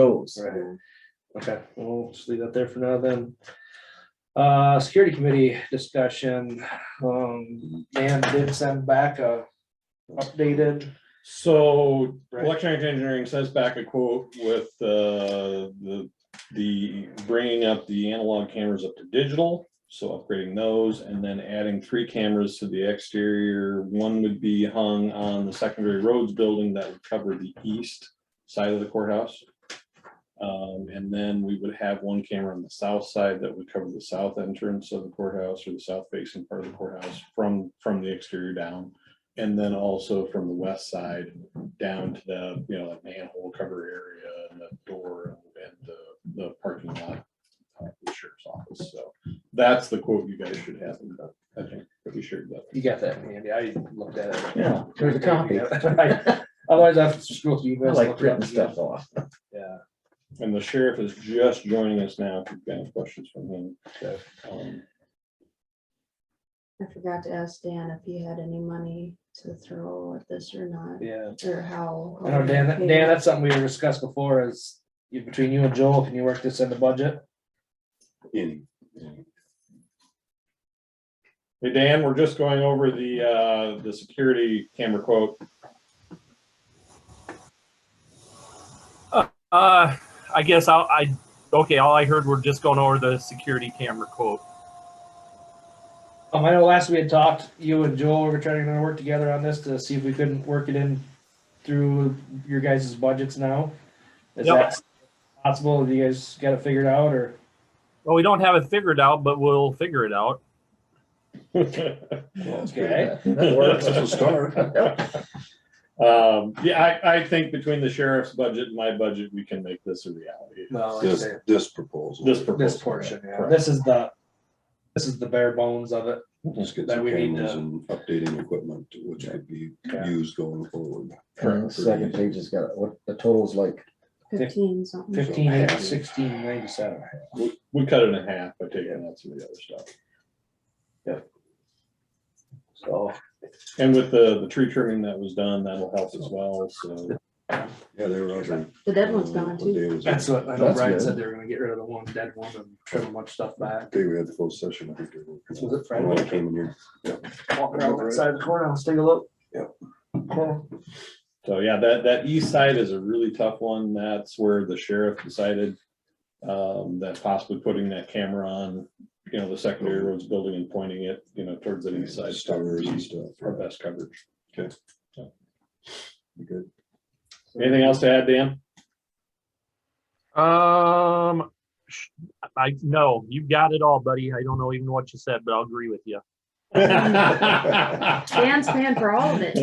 goes. Right. Okay, well, we'll just leave that there for now then. Uh, security committee discussion, um, Dan did send back a updated, So Right. electronic engineering says back a quote with uh, the, the bringing up the analog cameras up to digital. So upgrading those and then adding three cameras to the exterior. One would be hung on the secondary roads building that would cover the east side of the courthouse. Um, and then we would have one camera on the south side that would cover the south entrance of the courthouse or the south facing part of the courthouse from, from the exterior down. And then also from the west side down to the, you know, like manhole cover area and the door and the, the parking lot. uh, the Sheriff's office, so that's the quote you guys should have, and I think, pretty sure that. you got that, Andy, I looked at it. Yeah, there's a copy. I Right. Otherwise, I have to scroll through. you guys like look it up printing stuff again. off. Yeah, And the sheriff is just joining us now, if you've got any questions from him. Okay. Um, I forgot to ask Dan if he had any money to throw at this or not, yeah, or how. I know, Dan, that- Dan, that's something we discussed before is, you- between you and Joel, can you work this in the budget? in. Hey, Dan, we're just going over the, uh, the security camera quote. Uh, I guess I'll, I, okay, all I heard were just going over the security camera quote. Um, I know last we had talked, you and Joel were trying to work together on this to see if we couldn't work it in through your guys' budgets now. Is Yep. that possible? Have you guys got it figured out or? Well, we don't have it figured out, but we'll figure it out. Okay. That works. That's a Um, yeah, I, I think between the sheriff's budget and my budget, we can make this a reality. No, This, this proposal. This This proposal. portion, yeah. This is the, this is the bare bones of it. Let's get that some we need cameras to- and updating equipment, which could be Yeah. used going forward. And the Second page has got, what, the total's like, Fifteen something. Fifteen eight sixteen ninety seven. We, we cut it in half by taking out some of the other stuff. So And with the, the tree trimming that was done, that'll help as well, so. Yeah, there were other. The dead one's gone What too. day was it? that's what, I know That's Brian good. said they were gonna get rid of the one dead one and trim a bunch of stuff back. Day we had the full session. I think they were- Was it Friday? When I came in here. Walking around that side of the courthouse, take a look. Yep. Cool. So yeah, that, that east side is a really tough one. That's where the sheriff decided um, that possibly putting that camera on, you know, the secondary roads building and pointing it, you know, towards the east side. Stars and stuff. Our best coverage. Be Good. Anything else to add, Dan? Um, sh- I, no, you got it all, buddy. I don't know even what you said, but I'll agree with you. Dan's paying for all of it.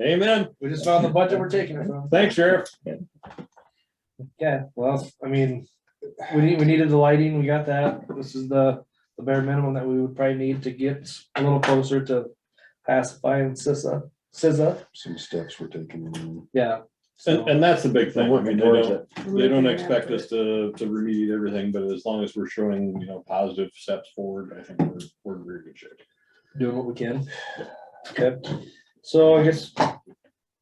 Amen. We just found the budget we're taking it from. Thanks, Sheriff. Yeah, well, I mean, we need, we needed the lighting, we got that, this is the, the bare minimum that we would probably need to get a little closer to pacifying CISA, CISA, Some steps were taken. and- yeah. And, So, and that's the big they're thing. I mean, working they towards don't- it. They don't expect us to, to remediate everything, but as long as we're showing, you know, positive steps forward, I think we're, we're in very good shape. doing what we can. Okay, so I guess,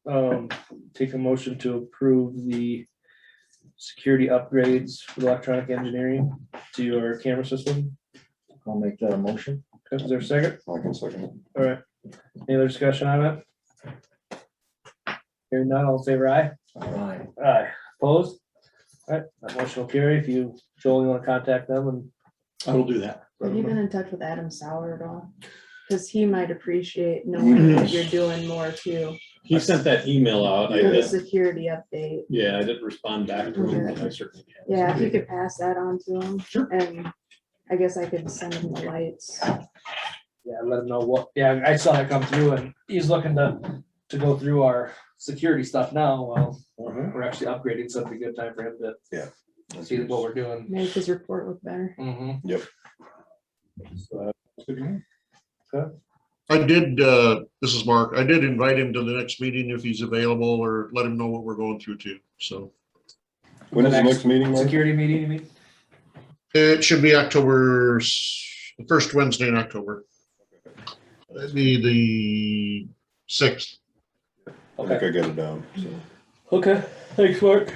um, take a motion to approve the security upgrades for the electronic engineering to our camera system, I'll make that a motion. is there a second? I can second it. All right, any other discussion on it? Hearing none, all in favor aye? Aye. Aye, opposed? Alright, that motion will carry if you, Joel, you wanna contact them and. I will do that. Have you been in touch with Adam Sauer at all? Cause he might appreciate knowing that you're doing more too, He sent that email out. I for the did, security update. yeah, I didn't respond back to him, but I certainly can. Yeah, if you could pass that on to him. And I guess I could send him the lights. Yeah, let them know what, yeah, I saw that come through and he's looking to, to go through our security stuff now, well, Mhm. we're actually upgrading, so it'd be a good time for him to see what we're doing. Make his report look better. Mhm. uh, So, I did, uh, this is Mark, I did invite him to the next meeting if he's available or let him know what we're going through too, so. When is the next meeting? Mike? Security meeting, you mean? It should be October, s- the first Wednesday in October. That'd be the sixth. I think Okay, I got it down, so. okay, thanks, Mark.